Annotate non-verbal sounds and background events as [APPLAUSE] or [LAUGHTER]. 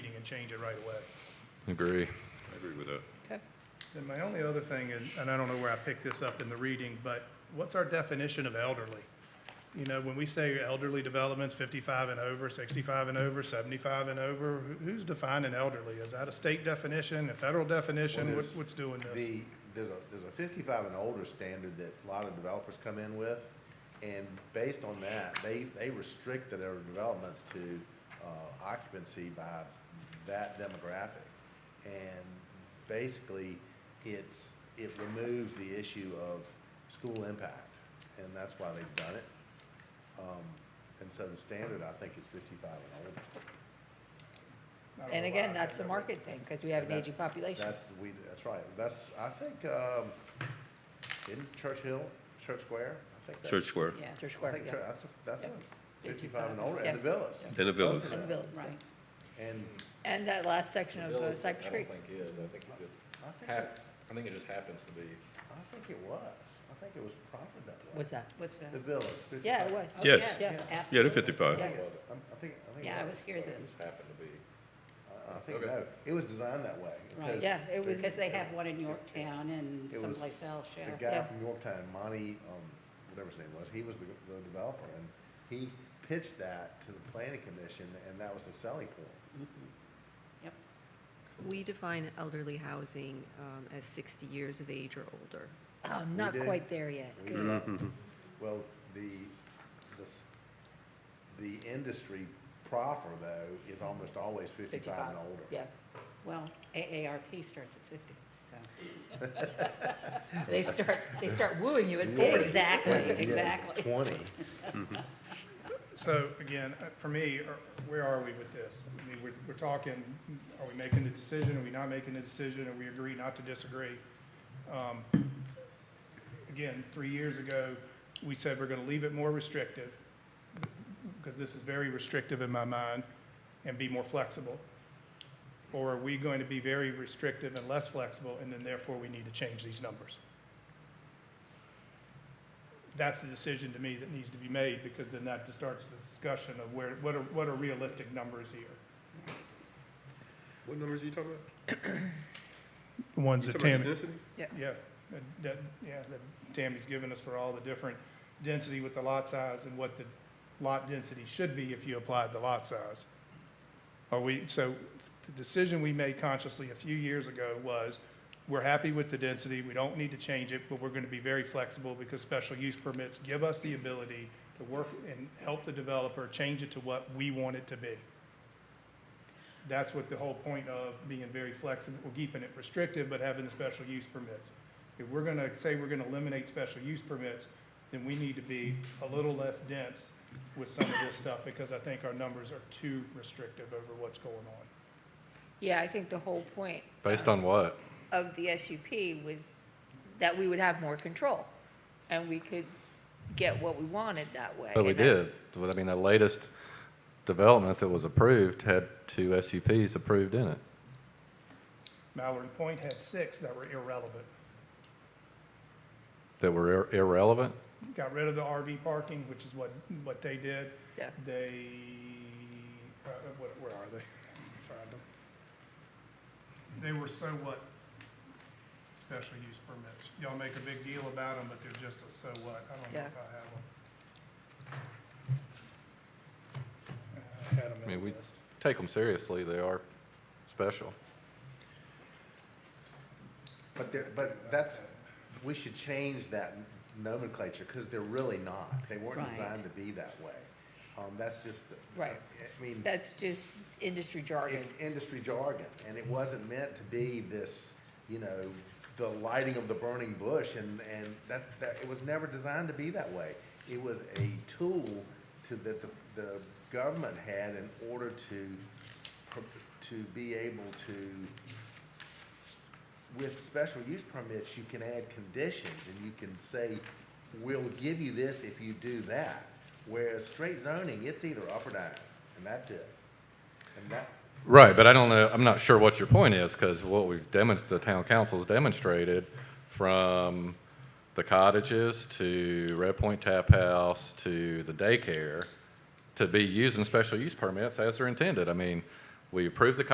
change it right away. Agree. I agree with that. Okay. And my only other thing is, and I don't know where I picked this up in the reading, but what's our definition of elderly? You know, when we say elderly developments, 55 and over, 65 and over, 75 and over, who- who's defining elderly? Is that a state definition, a federal definition? Well, What- there's What's doing this? The, there's a, there's a fifty-five and older standard that a lot of developers come in with, and based on that, they, they restrict their developments to, uh, occupancy by that demographic. And basically, it's, it removes the issue of school impact, and that's why they've done it. Um, and so the standard, I think, is fifty-five and older. I don't know And why again, I that's had a that. market thing, because we have an That- aging population. That's, we, that's right, that's, I think, um, in Churchill, Church Square, I think that's. Church Square, Yeah, Church I Square, think yeah. Chur- that's, that's Yep. fifty-five and older, and the Yeah. villas. Yeah. And the villas. Both of And the them. village, right. And And that last section of uh, Village, Cypress Creek. I don't think is, I think it just I think, it- hap, I think it just happens to be. I think it was, I think it was prompted that way. What's that? What's that? The villas. Yeah, 55. it was. Oh, Yes. Yeah. yeah, absolutely. they're fifty-five. I Yeah. think it- I'm- I think, I think. it Yeah, I was here but then, It just happened to be. I- I think, Okay. no, it was designed that way. because Yeah, it was, because they have one in Yorktown and It was someplace else, yeah. The guy Yeah. from Yorktown, Monty, um, whatever his name was, he was the, the developer, and he pitched that to the planning commission, and that was the selling point. We define elderly housing um, as 60 years of age or older. oh, not did. quite there yet. We Good. did. Well, the, the, s- the industry proffer though is almost always fifty-five and older. Yeah. Well, AARP starts at fifty, so. They start, they [LAUGHS] start wooing you at Yeah. forty. Exactly, [LAUGHS] Yeah, exactly. Twenty. So again, uh, for me, are- where are we with this? I mean, we're, we're talking, are we making the decision, are we not making the decision, and we agree not to disagree? Um, Again, three years ago, we said we're gonna leave it more restrictive, because this is very restrictive in my mind, and be more flexible. Or are we going to be very restrictive and less flexible, and then therefore we need to change these numbers? that's the decision to me that needs to be made, because then that just starts the discussion of where, what are, what are realistic numbers here? What numbers are you talking about? The Ones You that talking about Tammy, density? yeah, that, that, yeah, that Tammy's given us for all the different density with the lot size and what the lot density should be if you applied the lot size. Are we, so the decision we made consciously a few years ago was, we're happy with the density, we don't need to change it, but we're gonna be very flexible because special use permits give us the ability to work and help the developer change it to what we want it to be. That's what the whole point of being very flexible, or keeping it restrictive, but having the special use permits. If we're gonna say we're gonna eliminate special use permits, then we need to be a little less dense with some of this stuff, because I think our numbers are too restrictive over what's going on. Yeah, I think the whole point Based on um, what? of the SUP was that we would have more control, and we could get what we wanted that way. But we And I- did. Well, I mean, the latest development that was approved had two SUPs approved in it. Mallory Point had six that were irrelevant. that were ir- irrelevant? Got rid of the RV parking, which is what, what they did. Yeah. They, uh, where, where are they? Find them. They were so what? Special use permits. Y'all make a big deal about them, but they're just a so what. I don't know Yeah. if I have them. I had 'em I mean, in we- the list. Take them seriously, they are special. But there, but that's, we should change that nomenclature, because they're really not. They weren't Right. designed to be that way. Um, that's just the. Right. I mean. That's just industry jargon. it's industry jargon, and it wasn't meant to be this, you know, the lighting of the burning bush, and, and that, that, it was never designed to be that way. It was a tool to, that the, the government had in order to, pr- to be able to, with special use permits, you can add conditions, and you can say, we'll give you this if you do that. Whereas straight zoning, it's either up or down, and that's it. And that, Right, but I don't know, I'm not sure what your point is, because what we've demonstrated, the town council's demonstrated, from the cottages to Red Point Tap House to the daycare, to be using special use permits as they're intended. I mean, we approved the